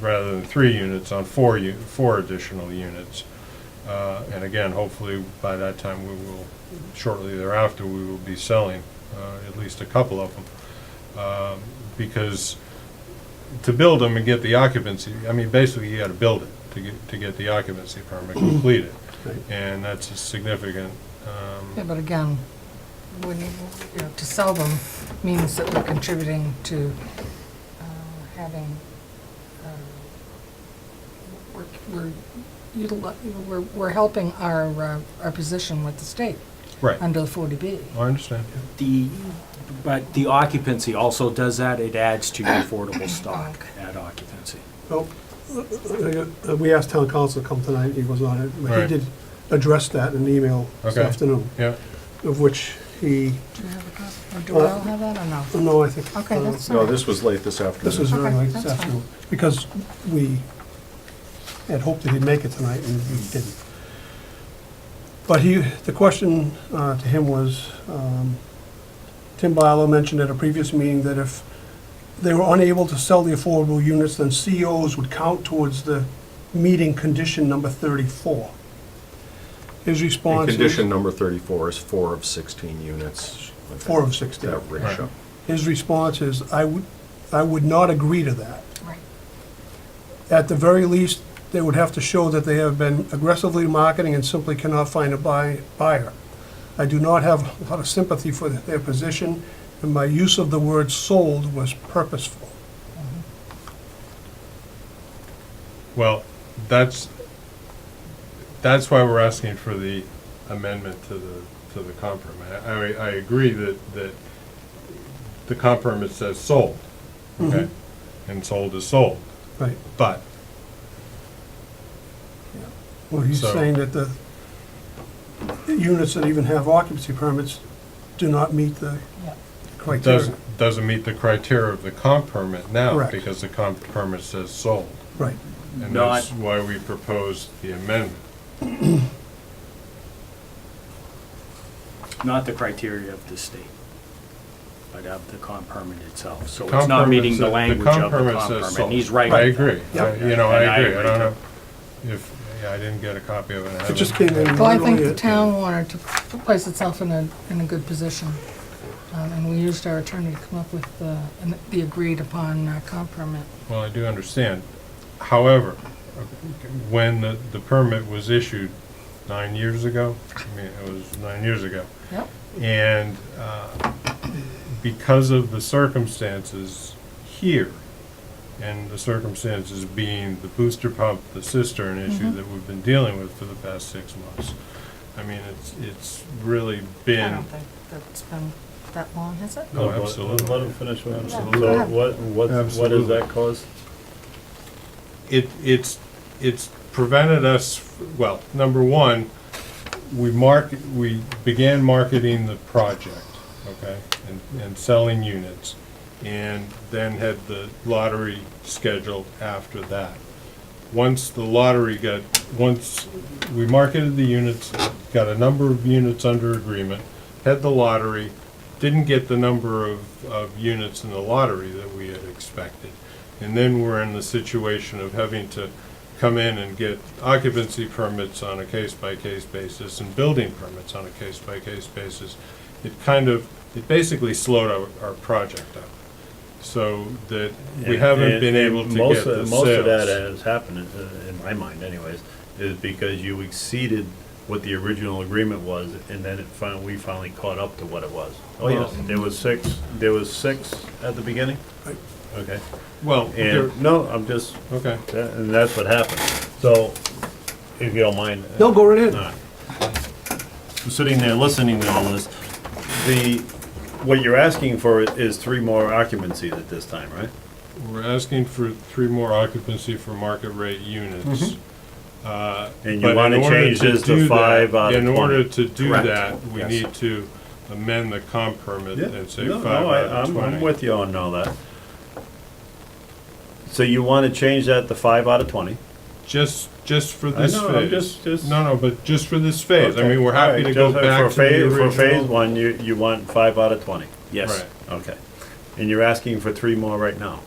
rather than three units, on four, u- four additional units. Uh, And again, hopefully by that time, we will, shortly thereafter, we will be selling uh, at least a couple of them. Um, Because to build them and get the occupancy, I mean, basically, you gotta build it to get, to get the occupancy permit completed. Right. And that's a significant, um, Yeah, but again, when, you you know, to sell them means that we're contributing to uh, having, uh, we're- we're, utili- we're, we're helping our, uh, our position with the state right, under the 40B. I understand. The, but the occupancy also does that, it adds to your affordable stock at occupancy. Well, uh, uh, we asked town council to come tonight, he was not, he Right. did address that in an email this Okay. afternoon, Yeah, of which he, Do you have a copy? Or do I all have that or no? no, I think. Okay, uh, that's No, all right. this was late this afternoon. This was very Okay, late this that's fine. afternoon, because we had hoped that he'd make it tonight, and he didn't. But he, the question uh, to him was, um, Tim Bialo mentioned at a previous meeting that if they were unable to sell the affordable units, then COs would count towards the meeting condition number 34. His And response. is- condition number 34 is four of 16 units. Four of 16. That ratio. Right. His response is, I would, I would not agree to that. Right. At the very least, they would have to show that they have been aggressively marketing and simply cannot find a buy- buyer. I do not have a lot of sympathy for their position, and my use of the word "sold" was purposeful. well, that's, that's why we're asking for the amendment to the, to the comp permit. I, I agree that, that the comp permit says sold, okay? And sold is sold, Right. but Well, he's So- saying that the the units that even have occupancy permits do not meet the Yeah. criteria. doesn't, doesn't meet the criteria of the comp permit now, Correct. because the comp permit says sold. Right. And Not- that's why we proposed the amendment. Not the criteria of the state, but of the comp permit itself. So it's Comp not permit meeting says- the language comp of the comp says permit. sold. and He's right. I with that. agree, Yeah. I- you know, I And I agree, I agree. don't know if, yeah, I didn't get a copy of it. I haven't- just came in. Well, I think Really, the it- town wanted to place itself in a, in a good position. Um, And we used our attorney to come up with the, an- the agreed upon uh, comp permit. Well, I do understand. However, when the, the permit was issued nine years ago, I mean, it was nine years ago, Yep. and uh, because of the circumstances here, and the circumstances being the booster pump, the cistern issue Mm-hmm. that we've been dealing with for the past six months, I mean, it's, it's really I been, don't think that's been that long, has it? oh, Let- Let absolutely. him finish with him. Yeah, go So ahead. what, what, what Absolutely. does that cause? it, it's, it's prevented us, well, number one, we market, we began marketing the project, okay, and, and selling units, and then had the lottery scheduled after that. Once the lottery got, once we marketed the units, got a number of units under agreement, had the lottery, didn't get the number of, of units in the lottery that we had expected. And then we're in the situation of having to come in and get occupancy permits on a case-by-case basis and building permits on a case-by-case basis. It kind of, it basically slowed our, our project up. So that we And- haven't and- been and able to most get of- the sales. Most of that has happened, uh, in my mind anyways, is because you exceeded what the original agreement was, and then it finally, we finally caught up to what it was. Oh, yes, there was six, there was six at the beginning? Okay, Well, there- and, no, I'm just, okay. that- and that's what happened. So, if you don't mind. No, go right ahead. All right. I'm sitting there listening to all this. The, what you're asking for is three more occupancies at this time, right? We're asking for three more occupancy for market rate units. Uh, Mm-hmm. And you but in wanna order change this to do that- five out of In order 20. to do Correct. that, we Yes. need to amend the comp permit and say No, five no, I- out of I'm- twenty. I'm with you on all that. So you want to change that to five out of 20? Just, just for I this phase. know, I'm just- just- No, no, but just for this phase. I mean, we're All happy right, to go just back to for the phase- original. For phase one, you, you want five out of 20? Yes, Right. Okay. And you're asking for three more right now?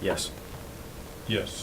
yes. Yes.